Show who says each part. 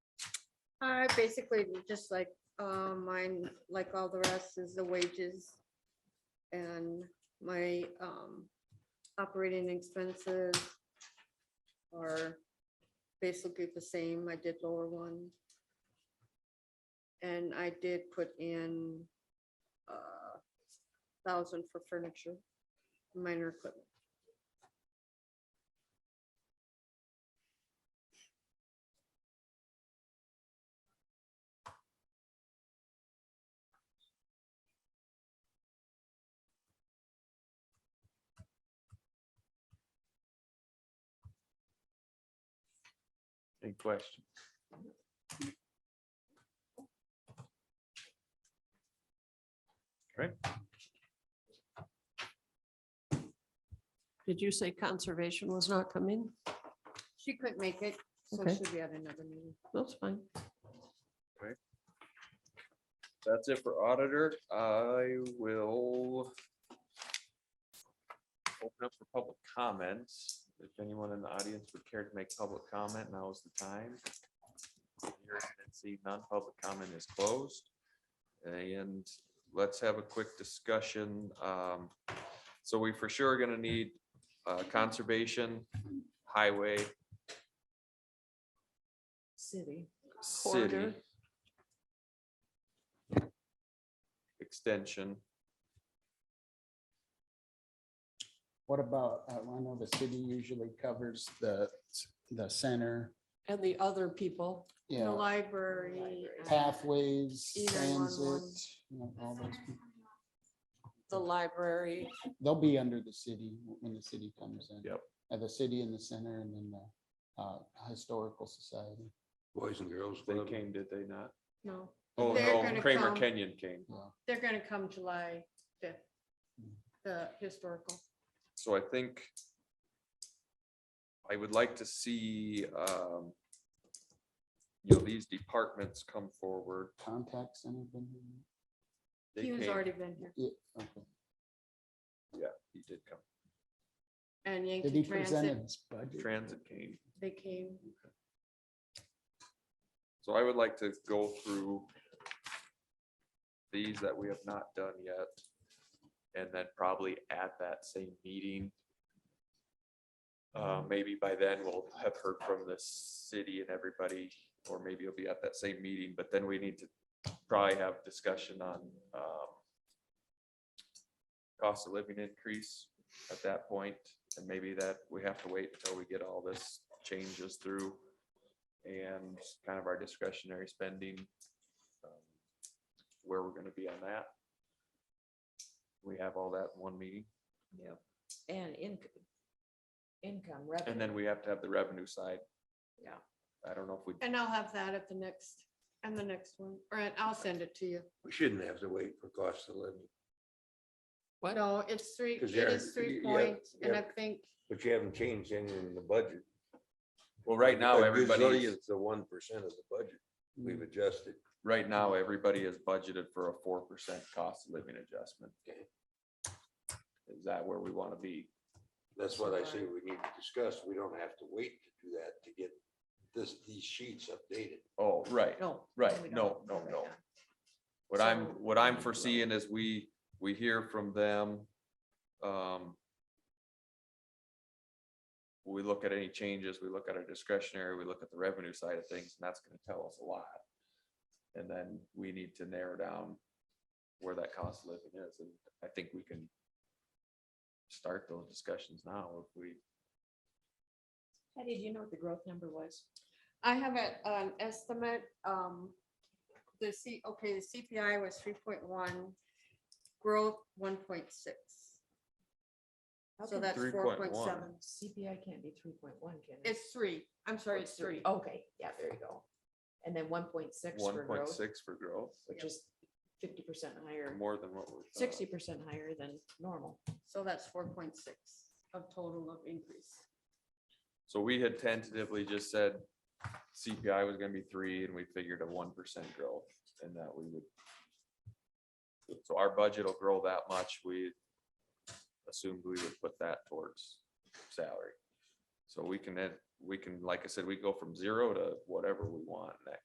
Speaker 1: I basically, just like, uh, mine, like all the rest is the wages. And my, um, operating expenses are basically the same. I did lower one. And I did put in, uh, thousand for furniture, minor equipment.
Speaker 2: Big question.
Speaker 3: Did you say conservation was not coming?
Speaker 1: She couldn't make it, so
Speaker 3: Okay.
Speaker 1: she'll be at another meeting.
Speaker 3: That's fine.
Speaker 2: That's it for auditor. I will open up for public comments. If anyone in the audience would care to make public comment, now is the time. Hearing and See, non-public comment is closed. And let's have a quick discussion. Um, So we for sure are gonna need uh, conservation, highway,
Speaker 3: City.
Speaker 2: city.
Speaker 3: Corridor.
Speaker 2: Extension.
Speaker 4: What about, uh, I know the city usually covers the, the center,
Speaker 3: And the other people.
Speaker 4: you
Speaker 1: The
Speaker 4: know,
Speaker 1: library. uh,
Speaker 4: pathways,
Speaker 1: Either one,
Speaker 4: transit.
Speaker 1: one.
Speaker 4: you know, all those people.
Speaker 3: the library,
Speaker 4: They'll be under the city when the city comes in.
Speaker 2: Yep.
Speaker 4: Uh, the city in the center and then the uh, historical society.
Speaker 5: Boys and girls.
Speaker 2: They
Speaker 5: Club.
Speaker 2: came, did they not?
Speaker 1: No,
Speaker 2: Oh,
Speaker 1: They're
Speaker 2: no,
Speaker 1: gonna
Speaker 2: Kramer
Speaker 1: come.
Speaker 2: Kenyon came.
Speaker 1: they're gonna come July fifth, the historical.
Speaker 2: So I think I would like to see, um, you know, these departments come forward.
Speaker 4: Contact center. been here?
Speaker 2: They
Speaker 1: He was
Speaker 2: came-
Speaker 1: already been here.
Speaker 4: Yeah, okay.
Speaker 2: Yeah, he did come.
Speaker 1: And
Speaker 4: Did
Speaker 1: Yankee
Speaker 4: he present
Speaker 1: Transit,
Speaker 4: his budget?
Speaker 2: Transit came.
Speaker 1: they came.
Speaker 2: So I would like to go through these that we have not done yet. And then probably at that same meeting. Uh, maybe by then we'll have heard from the city and everybody, or maybe it'll be at that same meeting, but then we need to probably have discussion on, um, cost of living increase at that point, and maybe that we have to wait until we get all this changes through and kind of our discretionary spending. um, Where we're gonna be on that. We have all that in one meeting,
Speaker 6: Yep, and inc- income
Speaker 2: and
Speaker 6: revenue.
Speaker 2: then we have to have the revenue side.
Speaker 6: Yeah.
Speaker 2: I don't know if we,
Speaker 1: And I'll have that at the next, and the next one, or and I'll send it to you.
Speaker 5: We shouldn't have to wait for cost of living,
Speaker 3: What?
Speaker 1: No, it's three, it
Speaker 5: 'Cause they're-
Speaker 1: is three
Speaker 5: yeah,
Speaker 1: points, and I
Speaker 5: yeah.
Speaker 1: think,
Speaker 5: but you haven't changed anything in the budget.
Speaker 2: well, right now,
Speaker 5: A
Speaker 2: everybody,
Speaker 5: gazillion's The one percent of the budget we've adjusted.
Speaker 2: right now, everybody is budgeted for a four percent cost of living adjustment. Is that where we wanna be?
Speaker 5: That's what I say we need to discuss. We don't have to wait to do that to get this, these sheets updated.
Speaker 2: Oh, right,
Speaker 6: No.
Speaker 2: right,
Speaker 6: we don't
Speaker 2: no, no,
Speaker 6: have that
Speaker 2: no.
Speaker 6: now.
Speaker 2: What I'm,
Speaker 6: So-
Speaker 2: what I'm foreseeing is we, we hear from them. um, We look at any changes, we look at our discretionary, we look at the revenue side of things, and that's gonna tell us a lot. And then we need to narrow down where that cost of living is, and I think we can start those discussions now if we,
Speaker 6: Patty, do you know what the growth number was?
Speaker 1: I have a- an estimate, um, the C, okay, the CPI was three point one, growth one point six.
Speaker 6: How
Speaker 1: So
Speaker 6: can
Speaker 1: that's four point
Speaker 2: 3.1.
Speaker 1: seven.
Speaker 6: CPI can't be three point one, can it?
Speaker 1: It's three, I'm
Speaker 6: Or
Speaker 1: sorry, it's three.
Speaker 6: Okay, yeah, there you go. And then one point six
Speaker 2: one
Speaker 6: for
Speaker 2: point
Speaker 6: growth,
Speaker 2: six for growth,
Speaker 6: which is fifty percent higher,
Speaker 2: more than what we're.
Speaker 6: sixty percent higher than normal.
Speaker 1: So that's four point six of total of increase.
Speaker 2: So we had tentatively just said CPI was gonna be three and we figured a one percent growth and that we would. So our budget will grow that much. We assumed we would put that towards salary. So we can, then- we can, like I said, we go from zero to whatever we want. and That